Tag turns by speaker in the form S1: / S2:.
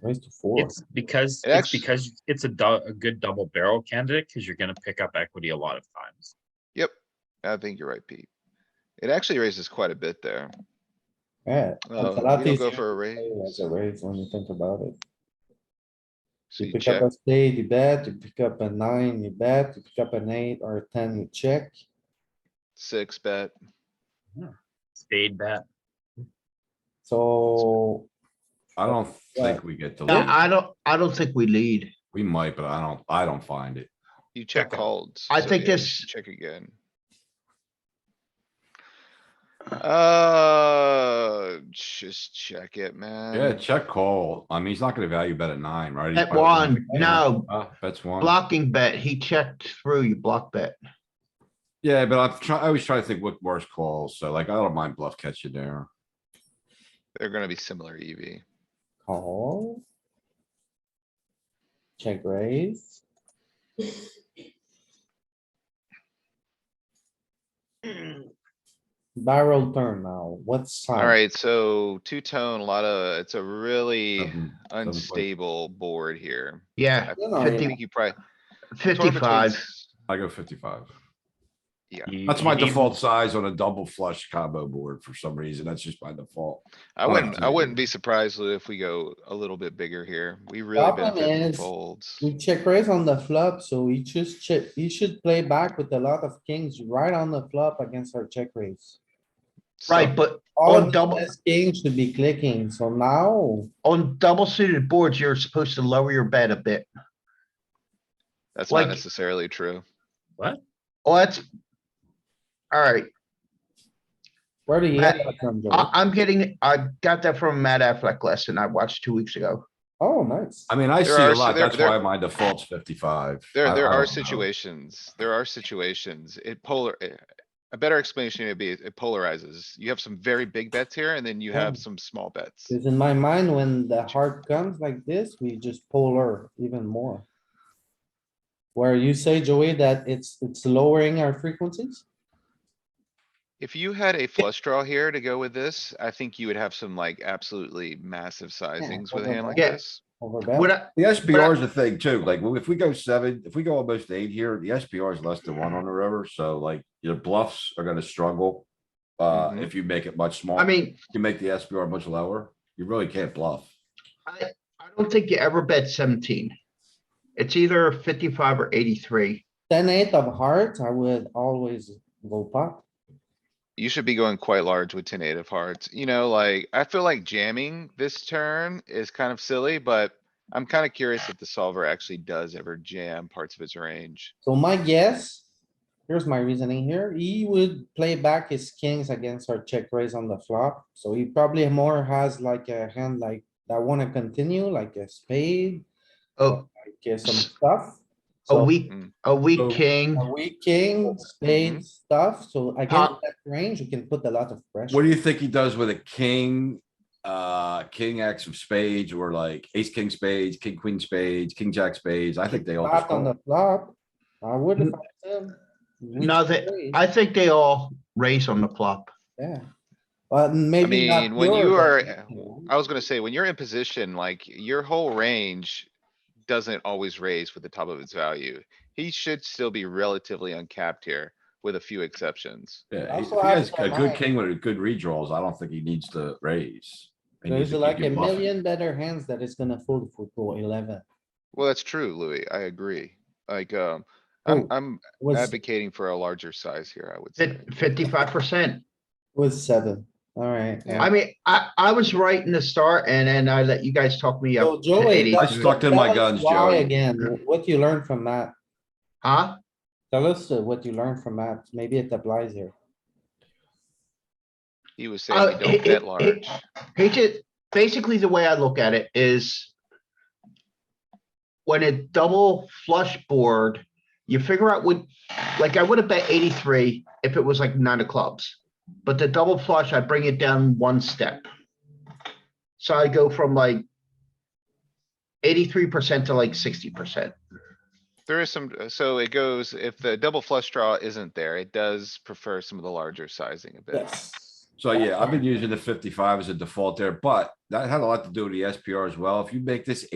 S1: raise to four.
S2: It's because,
S3: It
S2: it's
S3: actu-
S2: because it's a dou- a good double barrel candidate, cause you're gonna pick up equity a lot of times.
S3: Yep, I think you're right, Pete. It actually raises quite a bit there.
S1: Yeah. it's
S3: Uh,
S1: a lot
S3: you don't go
S1: easier
S3: for a
S1: to play As
S3: raise.
S1: a raise when you think about it.
S3: So
S1: You
S3: you
S1: pick up
S3: check,
S1: a spade, you bet, you pick up a nine, you bet, you pick up an eight or a ten, you check.
S3: six bet.
S2: Spade bet.
S1: So
S4: I don't think we get to lead.
S5: I don't, I don't think we lead.
S4: We might, but I don't, I don't find it.
S3: You check
S2: Okay.
S3: calls.
S5: I
S3: so
S5: think
S3: yeah, you
S5: this-
S3: should Check again. Uh, just check it, man.
S4: Yeah, check call. I mean, he's not gonna value bet at nine, right? He's
S5: At
S4: probably gonna
S5: one,
S4: make-
S5: no,
S4: Uh, That's one.
S5: blocking bet, he checked through, you block bet.
S4: Yeah, but I've tried, I always try to think what worse calls. So like, I don't mind bluff catching there.
S3: They're gonna be similar E EV.
S1: call. Check raise. Barrel turn now, what's? time?
S3: Alright, so two-tone, a lot of, it's a really
S4: Doesn't- play.
S3: unstable board here.
S5: Yeah,
S3: I
S1: No, no, yeah.
S3: think you probably. somewhere between
S5: fifty-five.
S3: s-
S4: I go fifty-five.
S2: You-
S4: That's
S2: you
S4: my
S2: need-
S4: default size on a double flush combo board for some reason. That's just my default.
S3: I
S4: Oh,
S3: wouldn't, I
S4: dude.
S3: wouldn't be surprised Lou, if we go a little bit bigger here. We really
S1: Problem
S3: benefit from
S1: is-
S3: folds.
S1: We check raise on the flop, so he just check, he should play back with a lot of kings right on the flop against our check raise.
S5: Right, but
S1: All
S5: On
S1: of
S5: double-
S1: his kings should be clicking, so now,
S5: on double suited boards, you're supposed to lower your bet a bit.
S3: That's not
S5: like-
S3: necessarily true.
S5: Oh, that's. Alright,
S1: where do you get
S5: Matt,
S1: that from,
S5: I,
S1: Joey?
S5: I'm getting, I got that from a Matt Affleck lesson I watched two weeks ago.
S1: Oh, nice.
S4: I mean, I
S3: There
S4: see
S3: are-
S4: a
S3: so
S4: lot.
S3: there-
S4: That's
S3: there-
S4: why my default's fifty-five.
S3: There,
S4: I-
S3: there
S4: I
S3: are
S4: don't know.
S3: situations, there are situations, it polar, eh, a better explanation would be it it polarizes. You have some very big bets here and then you have
S1: Mm.
S3: some small bets.
S1: Cause in my mind, when the heart comes like this, we just polar even more. Where you say, Joey, that it's, it's lowering our frequencies?
S3: If you had a flush draw here to go with this, I think you would have some like absolutely massive sizings with a hand like
S5: Yeah.
S3: this.
S1: Over
S5: What
S1: bet,
S5: I,
S4: The SPR is a thing too, like, well, if we go seven, if we go almost eight here, the SPR is less than one on the river, so like, your bluffs are gonna struggle. Uh,
S1: Mm-hmm.
S3: Mhm.
S4: if you make it much smaller.
S5: I mean,
S4: You make the SPR much lower, you really can't bluff.
S5: I, I don't think you ever bet seventeen. It's either fifty-five or eighty-three.
S1: ten eight of hearts, I would always go pop.
S3: You should be going quite large with ten eight of hearts, you know, like, I feel like jamming this turn is kind of silly, but. I'm kinda curious if the solver actually does ever jam parts of its range.
S1: So my guess, here's my reasoning here, he would play back his kings against our check raise on the flop, so he probably more has like a hand like, that wanna continue, like a spade,
S5: Oh,
S1: like uh, some stuff.
S5: a
S1: So-
S5: weak,
S3: Mm.
S5: a
S4: So-
S5: weak king.
S1: A weak
S4: Mm-hmm.
S1: king, spade stuff, so against that range, you can put a lot of pressure.
S4: What do you think he does with a king, uh, king X of spades, or like ace, king spades, king, queen spades, king, jack spades? I think they all just
S1: Flop on the
S4: call.
S1: flop, I would have. him. We
S5: No,
S1: should
S5: they-
S1: raise,
S5: I think they all raise on the flop.
S1: Yeah. But maybe not
S3: mean, when you
S1: yours,
S3: are-
S1: but-
S3: I was gonna say, when you're in position, like, your whole range doesn't always raise with the top of its value. He should still be relatively uncapped here, with a few exceptions.
S4: Yeah, he- if
S1: Also
S4: he has
S1: has
S4: a
S1: the
S4: good
S1: line.
S4: king with a good redraws, I don't think he needs to raise. He
S1: There's
S4: needs to
S1: like
S4: keep
S1: a
S4: him bluffing.
S1: million better hands that is gonna fold for go eleven.
S3: Well, that's true, Louis. I agree. Like, um, I'm,
S1: Oh,
S3: I'm
S1: Was,
S3: advocating for a larger size here, I would say.
S5: Fifty-five percent.
S1: was seven, alright.
S3: Yeah.
S5: I mean, I, I was right in the start and then I let you guys talk me
S1: So
S5: up. to
S1: Joey.
S5: 80.
S4: I
S1: tell-
S4: stuck to my
S1: tell us
S4: guns,
S1: why
S4: Joey.
S1: Again, what you learned from that,
S5: Huh?
S1: tell us uh, what you learned from that, maybe it applies here.
S3: He was
S5: Uh,
S3: saying, we don't
S5: it-
S3: bet
S5: it-
S3: large.
S5: He just, basically the way I look at it is when a double flush board, you figure out what, like I would have bet eighty-three if it was like nine of clubs. But the double flush, I bring it down one step. So I go from like eighty-three percent to like sixty percent.
S3: There is some, so it goes, if the double flush draw isn't there, it does prefer some of the larger sizing a bit.
S1: Yes.
S4: So yeah, I've been using the fifty-five as a default there, but that had a lot to do with the SPR as well. If you make this